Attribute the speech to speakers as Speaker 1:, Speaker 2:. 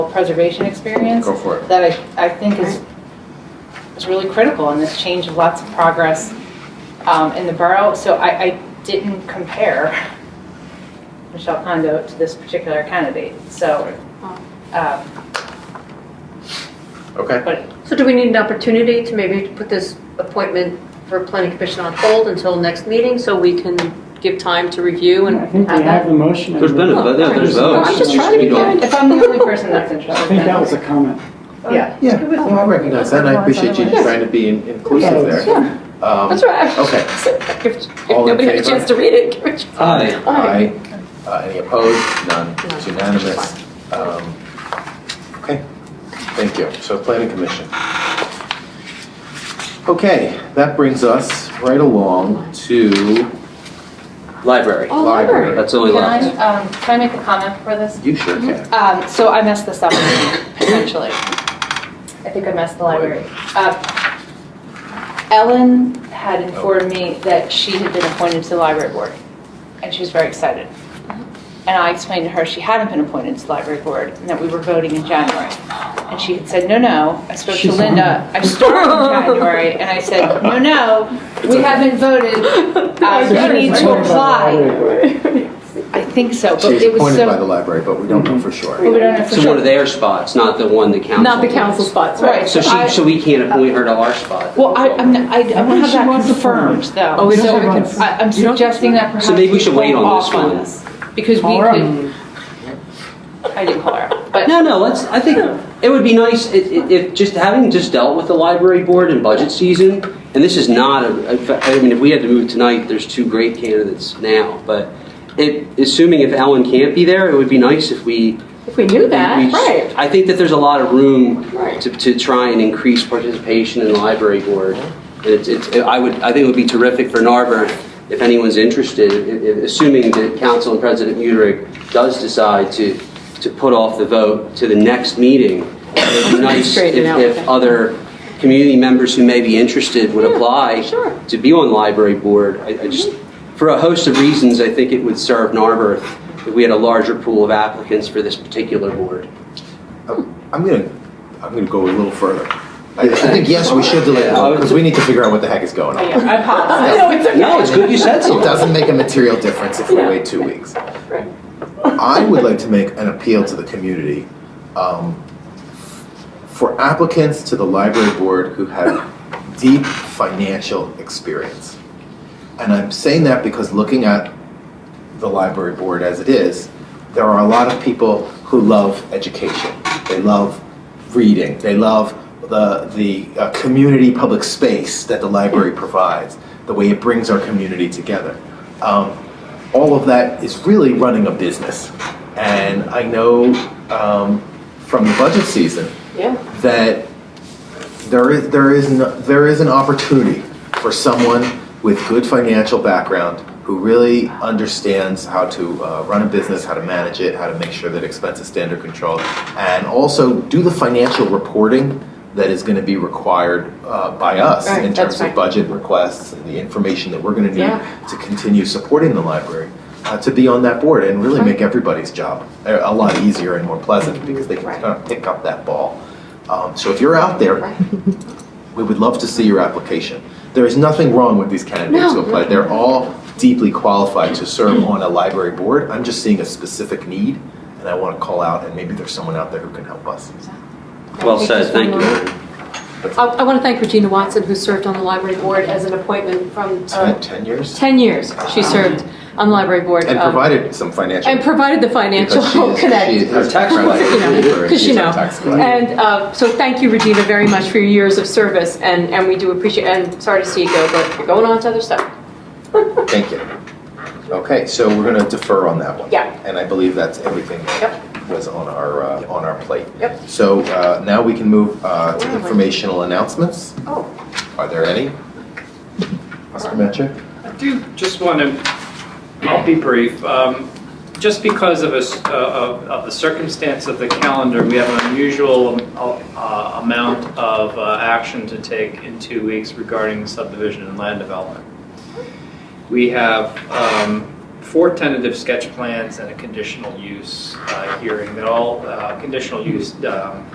Speaker 1: preservation experience
Speaker 2: Go for it.
Speaker 1: that I, I think is, is really critical in this change of lots of progress um, in the borough. So I, I didn't compare Michelle Kondo to this particular candidate, so, um,
Speaker 2: Okay.
Speaker 1: but
Speaker 3: So do we need an opportunity to maybe put this appointment for planning commission on hold until next meeting so we can give time to review
Speaker 4: I
Speaker 3: and
Speaker 4: think we
Speaker 3: have
Speaker 4: have
Speaker 3: that?
Speaker 4: the motion. and
Speaker 5: There's been
Speaker 4: the-
Speaker 5: a, yeah, there's votes.
Speaker 3: I'm just trying to be
Speaker 5: You don't-
Speaker 3: fair.
Speaker 1: if I'm the only person that's
Speaker 4: I
Speaker 1: interested,
Speaker 4: think that
Speaker 1: then,
Speaker 4: was a comment.
Speaker 1: yeah.
Speaker 2: Yeah, no, I recognize that, and I appreciate you just trying to be in- inclusive there.
Speaker 4: Yeah.
Speaker 2: Um,
Speaker 3: That's right.
Speaker 2: Okay.
Speaker 3: If if
Speaker 2: All in
Speaker 3: nobody had a
Speaker 2: favor?
Speaker 3: chance to read it, give it. a try.
Speaker 5: Aye.
Speaker 2: Aye. Uh, Any opposed? None. It's
Speaker 3: None.
Speaker 2: unanimous. Um, Okay, thank you. So Planning Commission. Okay, that brings us right along to
Speaker 5: Library.
Speaker 3: Oh, library.
Speaker 2: library.
Speaker 5: That's only
Speaker 1: Can I,
Speaker 5: left.
Speaker 1: um, can I make a comment for this?
Speaker 2: You sure can.
Speaker 1: Um, so I messed this up potentially. I think I messed the library. up. Uh, Ellen had informed me that she had been appointed to the library board, and she was very excited. And I explained to her she hadn't been appointed to the library board, and that we were voting in January. And she had said, no, no, I spoke
Speaker 4: She
Speaker 1: to Linda, I started in January, and I said, no, no, we haven't voted,
Speaker 4: So she
Speaker 1: uh, you need
Speaker 4: was
Speaker 1: to
Speaker 4: appointed by the
Speaker 1: apply.
Speaker 4: library board.
Speaker 1: I think so, but
Speaker 2: She's
Speaker 1: it was
Speaker 2: appointed by the
Speaker 1: so.
Speaker 2: library, but we don't know for
Speaker 1: but
Speaker 2: sure.
Speaker 1: we don't know for
Speaker 5: So
Speaker 1: sure.
Speaker 5: one of their spots, not the one the council.
Speaker 6: Not the council spots, right?
Speaker 1: Right,
Speaker 5: So
Speaker 1: I-
Speaker 5: she, so we can't appoint her to our spot.
Speaker 1: Well, I, I'm, not- I I don't
Speaker 4: think
Speaker 1: have
Speaker 4: she
Speaker 1: that
Speaker 4: wants to
Speaker 1: confirmed,
Speaker 4: form.
Speaker 1: though.
Speaker 6: Oh, we don't
Speaker 1: So
Speaker 6: have it
Speaker 1: I- I'm
Speaker 6: You don't-
Speaker 1: suggesting that perhaps.
Speaker 5: So maybe we should wait
Speaker 1: hold
Speaker 5: on this
Speaker 1: off
Speaker 5: one.
Speaker 1: this, Because we
Speaker 4: All
Speaker 1: could,
Speaker 4: right.
Speaker 1: I didn't call her, up, but,
Speaker 5: No, no, let's, I think it would be nice if, if- if, just having just dealt with the library board in budget season, and this is not, a- in fact, I mean, if we had to move tonight, there's two great candidates now, but it, assuming if Ellen can't be there, it would be nice if we.
Speaker 6: If we knew
Speaker 5: we-
Speaker 6: that,
Speaker 5: we-
Speaker 6: right?
Speaker 5: I think that there's a lot of room
Speaker 6: Right.
Speaker 5: to, to try and increase participation in the library board. And It's, it's, I would, I think it would be terrific for Narber if anyone's interested, i- i- assuming that council and President Mutrick does decide to, to put off the vote to the next meeting. It would be nice if,
Speaker 6: Straighten it out.
Speaker 5: if other community members who may be interested would apply
Speaker 6: sure.
Speaker 5: to be on library board. I, I just, for a host of reasons, I think it would serve Narber if we had a larger pool of applicants for this particular board.
Speaker 2: I'm gonna, I'm gonna go a little further. I I think, yes, we should delay it, because we need to figure out what the heck is going on.
Speaker 1: yeah, I apologize.
Speaker 6: No, it's okay.
Speaker 5: No, it's good you said
Speaker 2: It
Speaker 5: something.
Speaker 2: doesn't make a material difference if we
Speaker 6: Yeah.
Speaker 2: wait two weeks.
Speaker 6: Right.
Speaker 2: I would like to make an appeal to the community um, for applicants to the library board who have deep financial experience. And I'm saying that because looking at the library board as it is, there are a lot of people who love education. They love reading. They love the the uh, community public space that the library provides, the way it brings our community together. Um, all of that is really running a business, and I know um, from the budget season
Speaker 6: Yeah.
Speaker 2: that there is there is no, there is an opportunity for someone with good financial background who really understands how to uh, run a business, how to manage it, how to make sure that expenses stay under control, and also do the financial reporting that is going to be required uh, by us
Speaker 6: Right,
Speaker 2: in
Speaker 6: that's
Speaker 2: terms
Speaker 6: right.
Speaker 2: of budget requests and the information that we're going to need
Speaker 6: Yeah.
Speaker 2: to continue supporting the library. Uh, to be on that board and really make everybody's job a, a lot easier and more pleasant because they can
Speaker 6: Mm-hmm. Right.
Speaker 2: kind of pick up that ball. Um, so if you're out there,
Speaker 6: Right.
Speaker 2: we would love to see your application. There is nothing wrong with these candidates who
Speaker 6: No.
Speaker 2: applied. They're all deeply qualified to serve on a library board. I'm just seeing a specific need, and I want to call out, and maybe there's someone out there who can help us.
Speaker 5: Well said, thank you.
Speaker 6: I, I want to thank Regina Watson, who served on the library board as an appointment from uh,
Speaker 2: Spent 10 years
Speaker 6: 10 years. She served on the library board.
Speaker 2: and
Speaker 6: um,
Speaker 2: provided some financial.
Speaker 6: And provided the financial
Speaker 2: because she is- she
Speaker 6: connect.
Speaker 2: is- her tax collector,
Speaker 6: You know,
Speaker 2: her-
Speaker 6: 'cause
Speaker 2: she's
Speaker 6: you
Speaker 2: our
Speaker 6: know.
Speaker 2: tax collector.
Speaker 6: And uh, so thank you, Regina, very much for your years of service, and, and we do appreciate, and sorry to see you go, but you're going on to other stuff.
Speaker 2: Thank you. Okay, so we're going to defer on that one.
Speaker 6: Yeah.
Speaker 2: And I believe that's everything that
Speaker 6: Yep.
Speaker 2: was on our, uh, on our plate.
Speaker 6: Yep.
Speaker 2: So uh, now we can move uh, to
Speaker 6: Where am I?
Speaker 2: informational announcements.
Speaker 6: Oh,
Speaker 2: Are there any? Mr. Metrick?
Speaker 7: I do just want to, I'll be brief. Um, Just because of us- uh, of of the circumstance of the calendar, we have an unusual um, uh, amount of uh, action to take in two weeks regarding subdivision and land development. We have um, four tentative sketch plans and a conditional use uh, hearing that all, uh, conditional use um,